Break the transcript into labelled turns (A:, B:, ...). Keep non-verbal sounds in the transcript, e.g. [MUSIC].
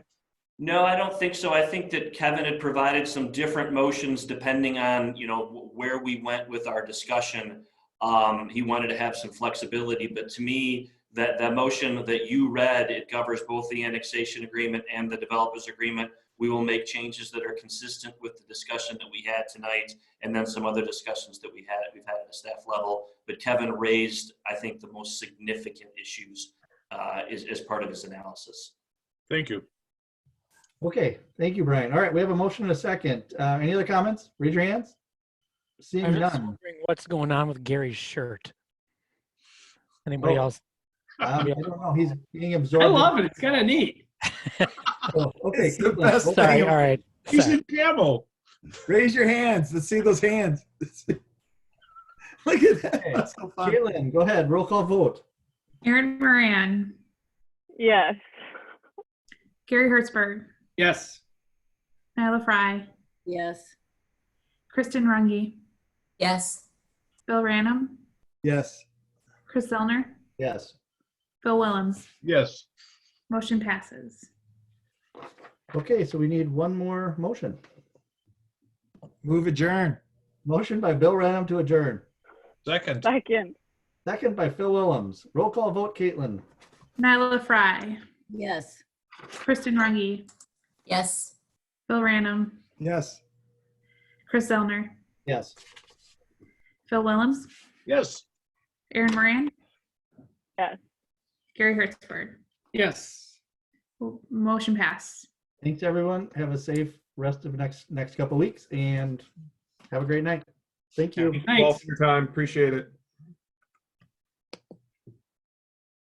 A: No, I don't think so. I think that Kevin had provided some different motions depending on, you know, wh- where we went with our discussion. Um, he wanted to have some flexibility, but to me, that, that motion that you read, it covers both the annexation agreement and the developers agreement. We will make changes that are consistent with the discussion that we had tonight and then some other discussions that we had, we've had at the staff level. But Kevin raised, I think, the most significant issues, uh, is, as part of his analysis.
B: Thank you.
C: Okay, thank you, Brian. All right, we have a motion and a second. Uh, any other comments? Raise your hands. Seeing
D: I'm just
C: none. Um,
D: wondering what's going on with Gary's shirt. Anybody
C: Oh.
D: else?
C: Um, I don't know. He's being absorbed.
E: I
C: in-
E: love it. It's kind of neat.
C: Oh, Okay.
F: It's the
C: Caitlin,
F: best
C: open
D: Sorry.
C: it up.
D: All right.
F: He's
D: sorry.
F: in camo. Raise your hands. Let's see those hands. [LAUGHS] Look at that.
C: Okay.
F: That's so fun.
C: Caitlin, go ahead. Roll call vote.
G: Aaron Moran,
H: Yes.
G: Gary Hertzberg,
E: Yes.
G: Nyla Fry,
I: Yes.
G: Kristen Runge,
I: Yes.
G: Bill Ranum,
F: Yes.
G: Chris Zellner,
C: Yes.
G: Bill Willems.
B: Yes.
G: Motion passes.
C: Okay, so we need one more motion.
F: Move adjourn.
C: Motion by Bill Ranum to adjourn.
B: Second.
H: Second.
C: Second by Phil Willems. Roll call vote. Caitlin.
G: Nyla Fry,
I: Yes.
G: Kristen Runge,
I: Yes.
G: Bill Ranum,
F: Yes.
G: Chris Zellner,
C: Yes.
G: Phil Willems,
B: Yes.
G: Aaron Moran.
H: Yes.
G: Gary Hertzberg.
E: Yes.
G: Motion pass.
C: Thanks, everyone. Have a safe rest of next next couple weeks and have a great night. Thank you.
E: Thanks.
B: your time. Appreciate it.